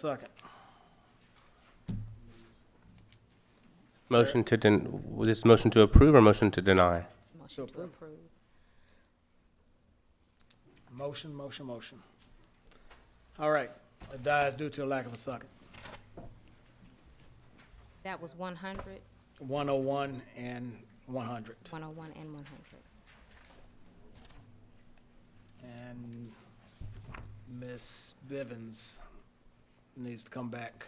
Second. Motion to den, this motion to approve or motion to deny? So Motion to approved. approve. Motion, motion, motion. All right, it dies due to a lack of a second. That was 100, 101 and 100. 101, and 100. And Miss Bivens needs to come back.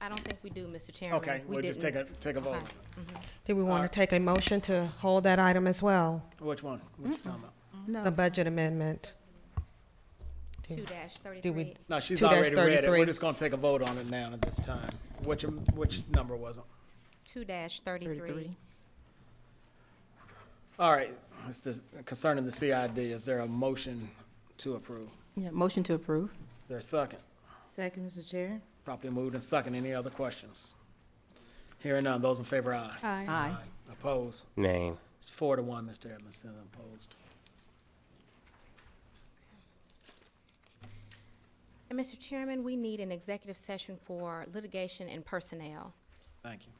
I don't think we do, Mr. Chairman. Okay, We we'll just take didn't- a, take a vote. Okay. Do we want to take a motion to hold that item as well? Which one? What you talking about? The budget amendment? 2-33. No, she's 2-33. already read it. We're just gonna take a vote on it now at this time. Which, which number was it? 2-33. All right, it's this- concerning the CID, is there a motion to approve? Yeah, motion to approve. Is there a second? Second, Mr. Chair. Properly moved and second. Any other questions? Hearing none, those in favor, aye. Aye. Opposed? Nay. It's four to one, Mr. Edmondson, opposed. And Mr. Chairman, we need an executive session for litigation and personnel. Thank you.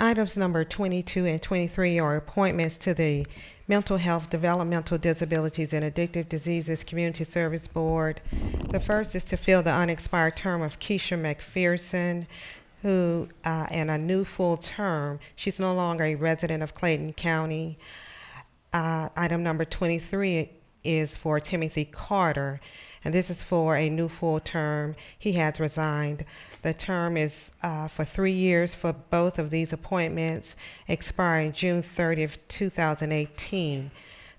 Items number 22 and 23 are appointments to the Mental Health, Developmental Disabilities, and Addictive Diseases Community Service Board. The first is to fill the unexpired term of Keisha McPherson, who, uh, and a new full term. She's no longer a resident of Clayton County. Uh, item number 23 is for Timothy Carter, and this is for a new full term. He has resigned. The term is uh, for three years for both of these appointments, expiring June 30th, 2018.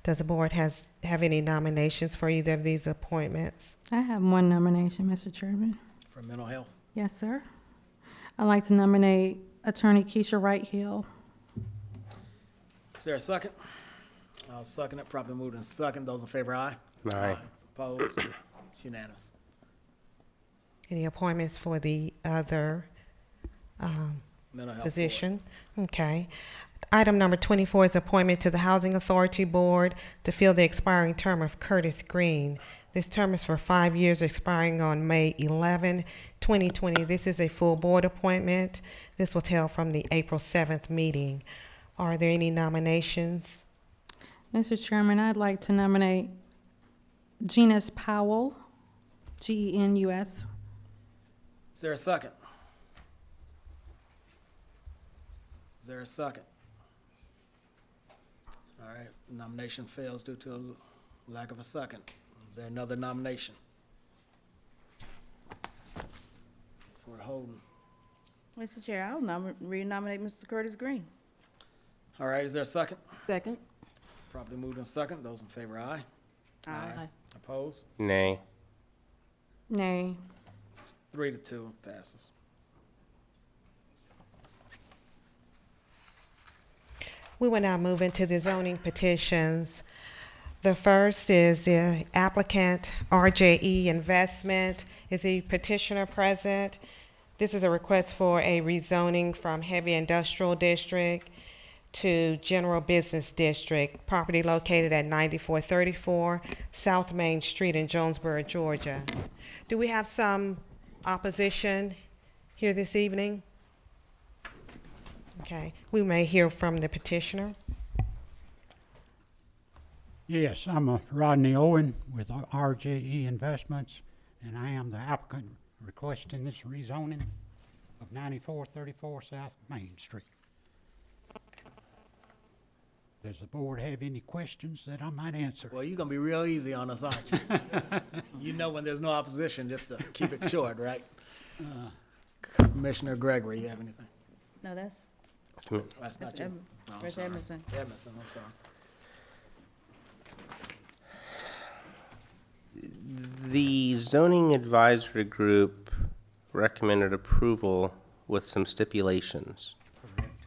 Does the board has have any nominations for either of these appointments? I have one nomination, Mr. Chairman. For mental health, Yes, sir. I'd like to nominate Attorney Keisha Wright Hill. is there a second? I'll second it. Properly moved and second. Those in favor, aye. Aye. Opposed? It's unanimous. Any appointments for the other Mental health. board. position. Okay. Item number 24 is appointment to the Housing Authority Board to fill the expiring term of Curtis Green. This term is for five years, expiring on May 11, 2020. This is a full board appointment. This was held from the April 7th meeting. Are there any nominations? Mr. Chairman, I'd like to nominate Genus Powell, E G-E-N-U-S. Is there a second? Is there a second? All right, nomination fails due to a lack of a second. Is there another nomination? That's what we're holding. Mr. Chair, I'll nom- renominate Mr. Curtis Green. All right, is there a second? Second. Properly moved and second. Those in favor, aye. Aye. Opposed? Nay. Nay. It's three to two, passes. We will now move into the zoning petitions. The first is the applicant RJE Investment. Is the petitioner present? This is a request for a rezoning from heavy industrial district to general business district. Property located at 9434 South Main Street in Jonesboro, Georgia. Do we have some opposition here this evening? Okay, we may hear from the petitioner. Yes, I'm uh, Rodney Owen with R- RJE Investments, and I am the applicant requesting this rezoning of 9434 South Main Street. Does the board have any questions that I might answer? Well, you're gonna be real easy on us, aren't you? you know when there's no opposition, just to keep it short, right? Commissioner Gregory, you have anything? No, that's, That's that's not you. Em- No, I'm that's sorry. Emerson. Emerson, I'm sorry. The zoning advisory group recommended approval with some stipulations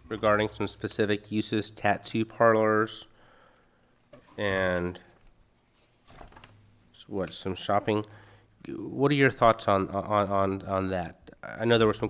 regarding some specific uses, tattoo parlors, and s- what, some shopping. What are your thoughts on, on, on, on that? I know there were some